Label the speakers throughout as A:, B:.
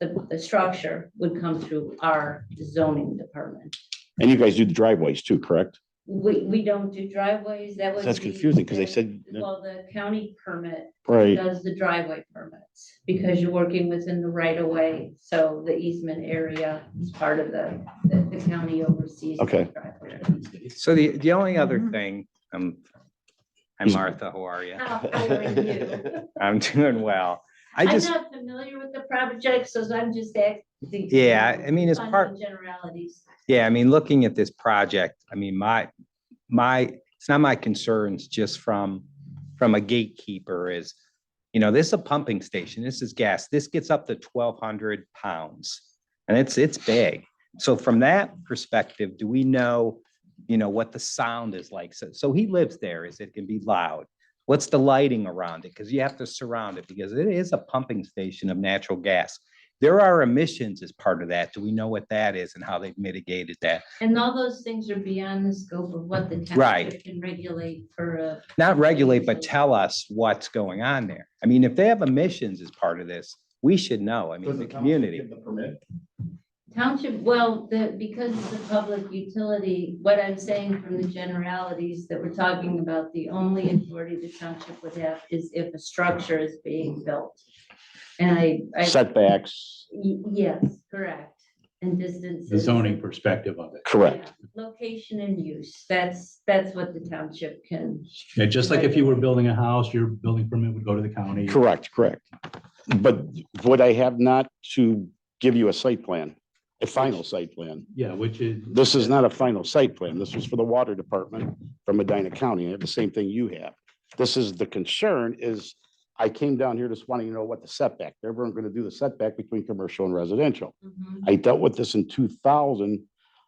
A: the structure would come through our zoning department.
B: And you guys do the driveways too, correct?
A: We, we don't do driveways, that was.
B: That's confusing because they said,
A: Well, the county permit
B: right,
A: does the driveway permits, because you're working within the right of way, so the easement area is part of the, that the county oversees. the
B: Okay.
A: driveway.
C: So the, the only other
A: Mhm.
C: thing, um, I'm
B: Is-
C: Martha, how are you?
A: How are you?
C: I'm doing well. I
A: I'm
C: just,
A: not familiar with the project, so I'm just asking.
C: yeah, I mean, as
A: fun
C: part,
A: and Generalities.
C: yeah, I mean, looking at this project, I mean, my, my, it's not my concerns just from, from a gatekeeper is, you know, this is a pumping station, this is gas, this gets up to twelve hundred pounds. And it's, it's big. So from that perspective, do we know, you know, what the sound is like? So, so he lives there, is it can be loud? What's the lighting around it? Because you have to surround it because it is a pumping station of natural gas. There are emissions as part of that. Do we know what that is and how they've mitigated that?
A: And all those things are beyond the scope of what the township
C: Right.
A: can regulate for a.
C: not regulate, but tell us what's going on there. I mean, if they have emissions as part of this, we should know. I mean, the community.
A: Township, well, the, because it's a public utility, what I'm saying from the generalities that we're talking about, the only authority the township would have is if a structure is being built. And I, I, y-
B: setbacks,
A: yes, correct, and distances.
D: the zoning perspective of it.
B: correct.
A: Yeah, Location and use, that's, that's what the township can.
D: Yeah, just like if you were building a house, your building permit would go to the county.
B: Correct, correct. But would I have not to give you a site plan, a final site plan?
D: Yeah, which is.
B: This is not a final site plan. This was for the water department from Medina County. I have the same thing you have. This is, the concern is, I came down here just wanting to know what the setback, they weren't gonna do the setback between commercial and residential.
A: Mhm.
B: I dealt with this in two thousand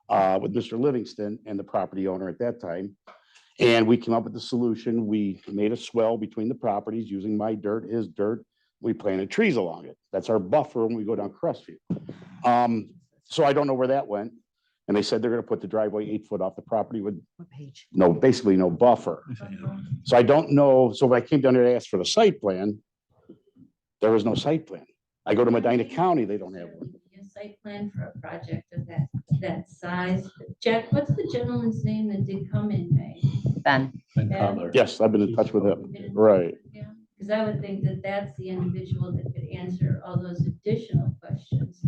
B: uh, with Mr. Livingston and the property owner at that time. And we came up with the solution. We made a swell between the properties using my dirt, his dirt. We planted trees along it. That's our buffer when we go down Crestview. Um, so I don't know where that went. And they said they're gonna put the driveway eight foot off the property with
E: What page?
B: no, basically no buffer.
A: Uh-huh.
B: So I don't know, so when I came down here to ask for the site plan, there was no site plan. I go to Medina County, they don't have one.
A: A site plan for a project of that, that size. Jack, what's the gentleman's name that did come in May?
E: Ben,
D: And color.
B: Yes, I've been in touch with him. Right.
A: Because I would think that that's the individual that could answer all those additional questions.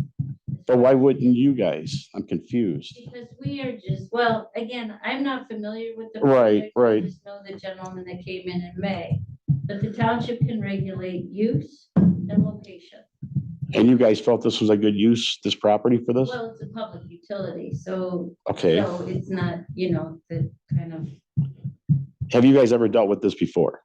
B: But why wouldn't you guys? I'm confused.
A: Because we are just, well, again, I'm not familiar with the.
B: Right,
A: project. I
B: right.
A: Just know the gentleman that came in in May, but the township can regulate use and location.
B: And you guys felt this was a good use, this property for this?
A: Well, it's a public utility, so,
B: Okay.
A: so it's not, you know, the kind of
B: Have you guys ever dealt with this before?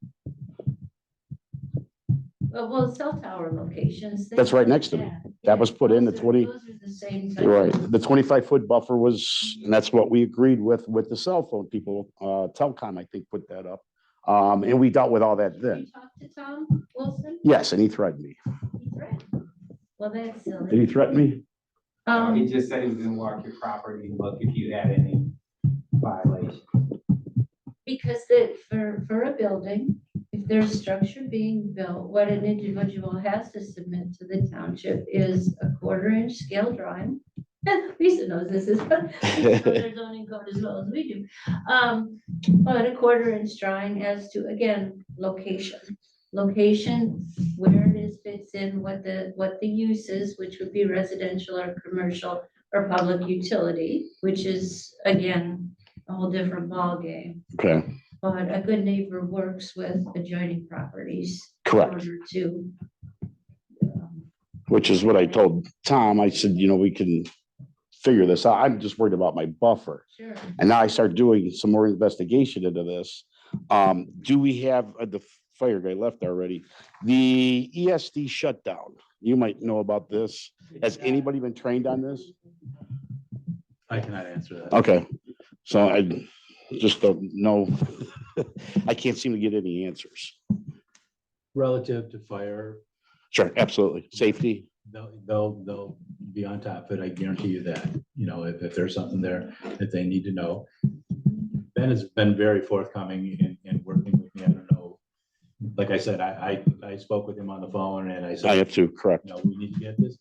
A: Well, Uh, well, cell tower locations.
B: That's right next to me. That was put in the 20
A: Those are the same. type
B: Right,
A: of-
B: the twenty-five foot buffer was, and that's what we agreed with, with the cell phone people, uh, Telcom, I think, put that up. Um, and we dealt with all that
A: Did
B: then.
A: you talk to Tom Wilson?
B: Yes, and he threatened me.
A: He threatened. Well, that's
B: Did
A: silly.
B: he threaten me?
F: No, He
A: Um,
F: just said he was gonna walk your property and look if you had any violations.
A: because the, for, for a building, if there's structure being built, what an individual has to submit to the township is a quarter inch scale drawing. Lisa knows this is, but she knows their zoning code as well as we do. Um, but a quarter inch drawing as to, again, location. Location, where it is fits in, what the, what the use is, which would be residential or commercial or public utility, which is, again, a whole different ballgame.
B: Okay,
A: But a good neighbor works with adjoining properties. in
B: correct,
A: order To. um,
B: which is what I told Tom. I said, you know, we can figure this out. I'm just worried about my buffer.
A: Sure.
B: And now I start doing some more investigation into this. Um, do we have, uh, the fire guy left already, the ESD shutdown? You might know about this. Has anybody been trained on this?
D: I cannot answer that.
B: Okay, so I just don't know. I can't seem to get any answers.
D: Relative to fire,
B: Sure, absolutely. Safety,
D: they'll, they'll, they'll be on top of it. I guarantee you that. You know, if, if there's something there that they need to know. Ben has been very forthcoming and, and working with me. I don't know. Like I said, I, I, I spoke with him on the phone and I
B: I
D: said,
B: have to, correct.
D: you know, we need to get this